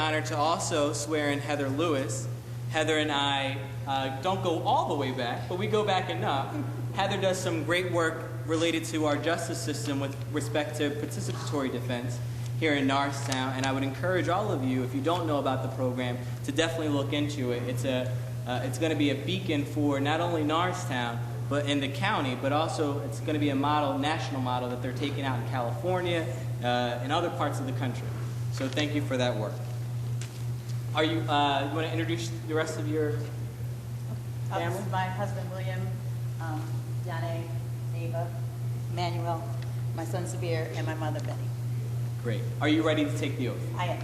honor to also swear in Heather Lewis. Heather and I uh, don't go all the way back, but we go back enough. Heather does some great work related to our justice system with respect to participatory defense here in Norristown, and I would encourage all of you, if you don't know about the program, to definitely look into it. It's a, uh, it's going to be a beacon for not only Norristown, but in the county, but also it's going to be a model, national model that they're taking out in California uh, and other parts of the country. So thank you for that work. Are you, uh, you want to introduce the rest of your Uh, This family? is my husband, William, um, Donna, Ava, Manuel, my son, Severe, and my mother, Betty. Great. Are you ready to take the oath? I am.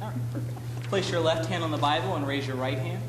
All right, perfect. Place your left hand on the Bible and raise your right hand.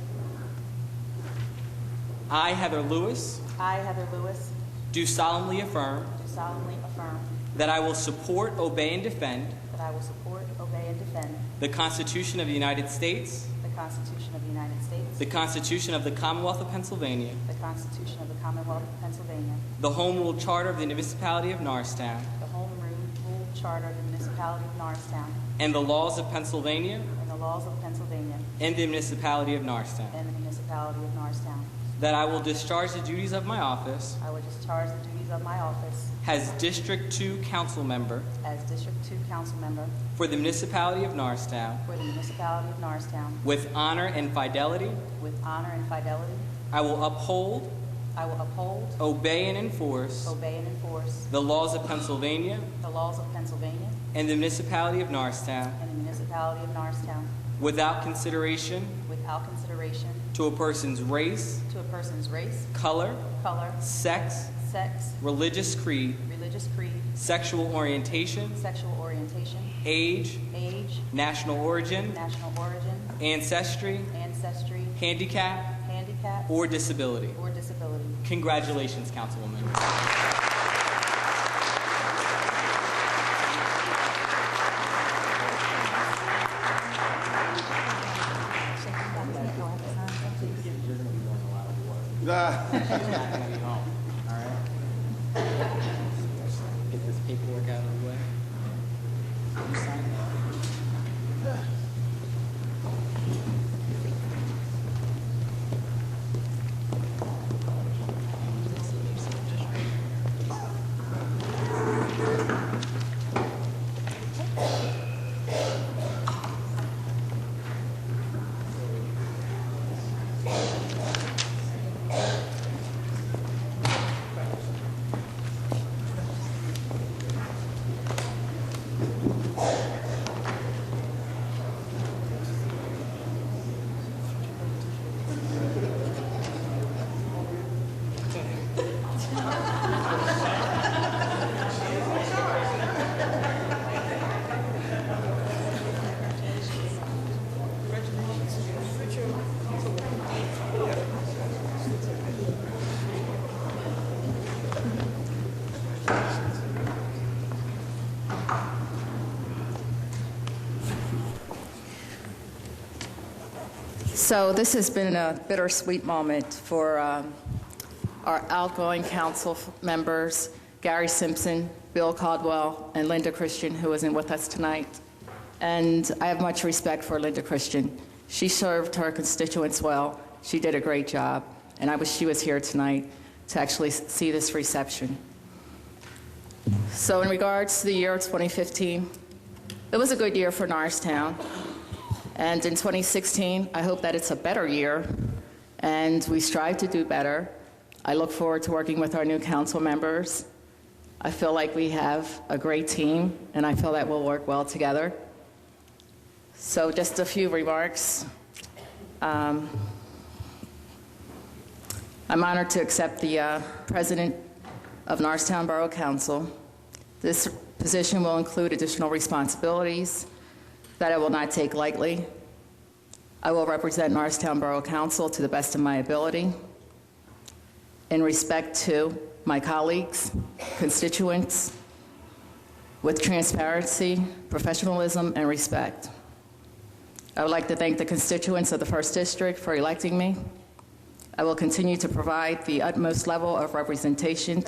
I, Heather Lewis, I, Heather Lewis, do solemnly affirm do solemnly affirm that I will support, obey, and defend that I will support, obey, and defend the Constitution of the United States, the Constitution of the United States, the Constitution of the Commonwealth of Pennsylvania, the Constitution of the Commonwealth of Pennsylvania, the Home Rule Charter of the Municipality of Norristown, the Home Rule Charter of the Municipality of Norristown, and the laws of Pennsylvania and the laws of Pennsylvania and the Municipality of Norristown. and the Municipality of Norristown. That I will discharge the duties of my office I will discharge the duties of my office as District 2 Council Member as District 2 Council Member for the Municipality of Norristown for the Municipality of Norristown with honor and fidelity. with honor and fidelity. I will uphold, I will uphold, obey, and enforce obey, and enforce the laws of Pennsylvania the laws of Pennsylvania and the Municipality of Norristown and the Municipality of Norristown without consideration without consideration to a person's race, to a person's race, color, color, sex, sex, religious creed, religious creed, sexual orientation, sexual orientation, age, age, national origin, national origin, ancestry, ancestry, handicap, handicap, or disability. or disability. Congratulations, Councilwoman. Get this paperwork out of the way. You sign that. So this has been a bittersweet moment for um, our outgoing council f- members, Gary Simpson, Bill Caldwell, and Linda Christian, who isn't with us tonight. And I have much respect for Linda Christian. She served her constituents well. She did a great job, and I wish she was here tonight to actually s- see this reception. So in regards to the year of 2015, it was a good year for Norristown. And in 2016, I hope that it's a better year, and we strive to do better. I look forward to working with our new council members. I feel like we have a great team, and I feel that we'll work well together. So just a few remarks. Um, I'm honored to accept the uh, President of Norristown Borough Council. This position will include additional responsibilities that I will not take lightly. I will represent Norristown Borough Council to the best of my ability in respect to my colleagues, constituents, with transparency, professionalism, and respect. I would like to thank the constituents of the First District for electing me. I will continue to provide the utmost level of representation